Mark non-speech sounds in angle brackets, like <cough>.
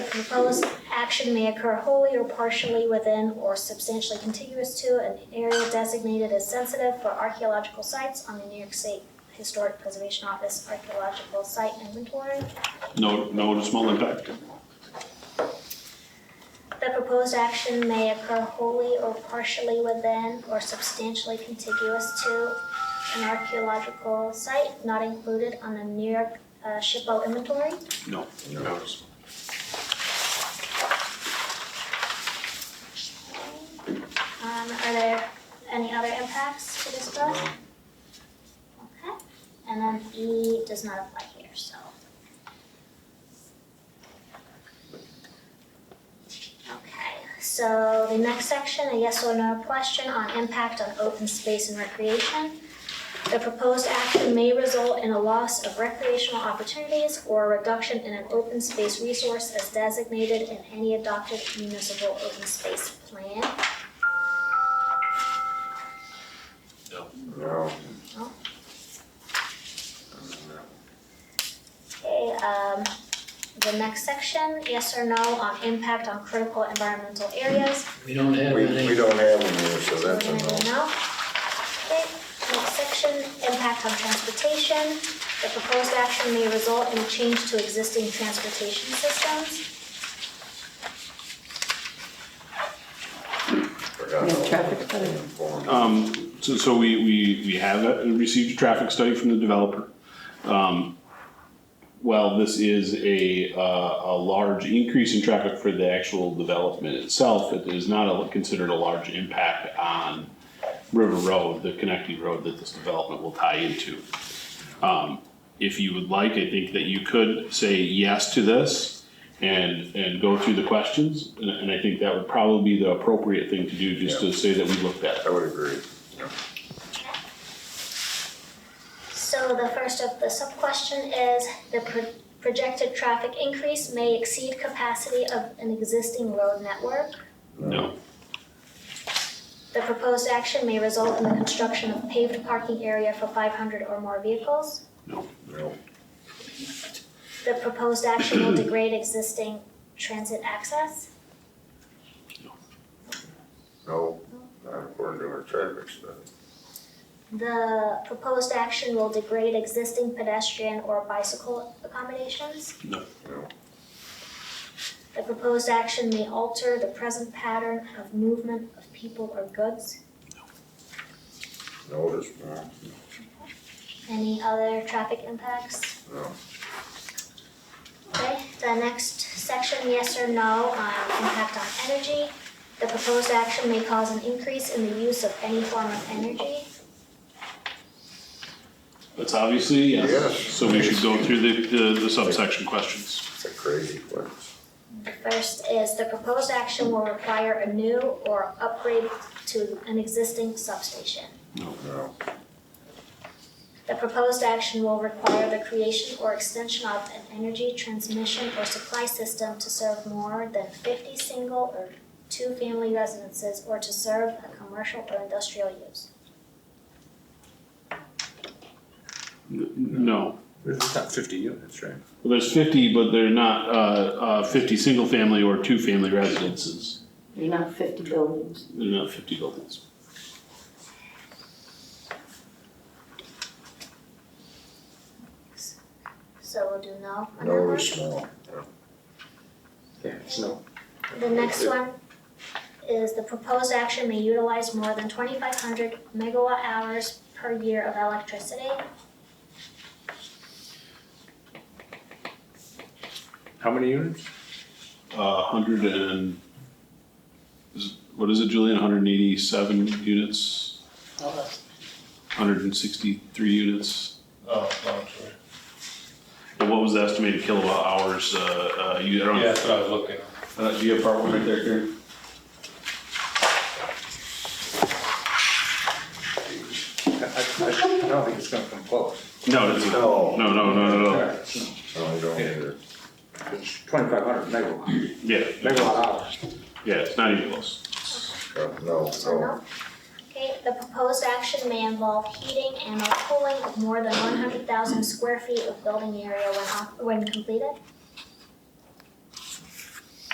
proposed action may occur wholly or partially within or substantially contiguous to an area designated as sensitive for archaeological sites on the New York State Historic Preservation Office Archaeological Site Inventory. No, no noticeable impact. The proposed action may occur wholly or partially within or substantially contiguous to an archaeological site not included on the New York uh, SHPO inventory. No. No notice. Um, are there any other impacts to discuss? Okay, and then E does not apply here, so. Okay, so the next section, a yes or no question on impact on open space and recreation. The proposed action may result in a loss of recreational opportunities or a reduction in an open space resource as designated in any adopted municipal open space plan. No. No. Okay, um, the next section, yes or no on impact on critical environmental areas. We don't have We, we any, don't have any here, so that's a We're gonna no. do no. Okay, next section, impact on transportation. The proposed action may result in a change to existing transportation systems. Forgot Yeah, all traffic that. study. Informed. Um, so, so we, we, we have uh, received a traffic study from the developer. Um, while this is a, uh, a large increase in traffic for the actual development itself, it is not a- considered a large impact on River Road, the connecting road that this development will tie into. Um, if you would like, I think that you could say yes to this and, and go through the questions. And, and I think that would probably be the appropriate thing to do, just to say that we looked at it. I would agree. So the first of the sub-question is, the pro- projected traffic increase may exceed capacity of an existing road network. No, The proposed action may result in the construction of paved parking area for five hundred or more vehicles. No, The proposed action <clears throat> will degrade existing transit access. no, not according to our traffic study. The proposed action will degrade existing pedestrian or bicycle accommodations. No, The proposed action may alter the present pattern of movement of people or goods. no, there's no, Any other traffic impacts? no. Okay, the next section, yes or no on impact on energy. The proposed action may cause an increase in the use of any form of energy. that's obviously yes. Yes. So we should go through the, the, the subsection questions. It's a crazy place. The first is the proposed action will require a new or upgrade to an existing substation. No, The proposed action will require the creation or extension of an energy transmission or supply system to serve more than fifty single or two-family residences or to serve a commercial or industrial use. N- No, There's not fifty units, right? Well, there's fifty, but they're not, uh, uh, fifty single-family or two-family residences. You're not fifty buildings. They're not fifty buildings. So we'll do no on that no, one. it's no. Yeah, it's no. The next one is the proposed action may utilize more than twenty-five hundred megawatt hours per year of electricity. How many units? A Uh, hundred and, is- what is it, Julian, hundred and eighty-seven units? Hundred and sixty-three units? Oh, no, I'm sorry. And what was the estimated kilowatt hours, uh, uh, you, I don't, Yeah, that's what I was looking at. uh, do you have part one right there, Karen? I, I, I don't think it's gonna come close. No, it's, no, No, no, no, no, no, no, I don't either. Twenty-five hundred megawatt, yeah, megawatt hour. yeah, it's not even close. Uh, No, So no, no. Okay, the proposed action may involve heating and or cooling of more than one hundred thousand square feet of building area when, op- when completed.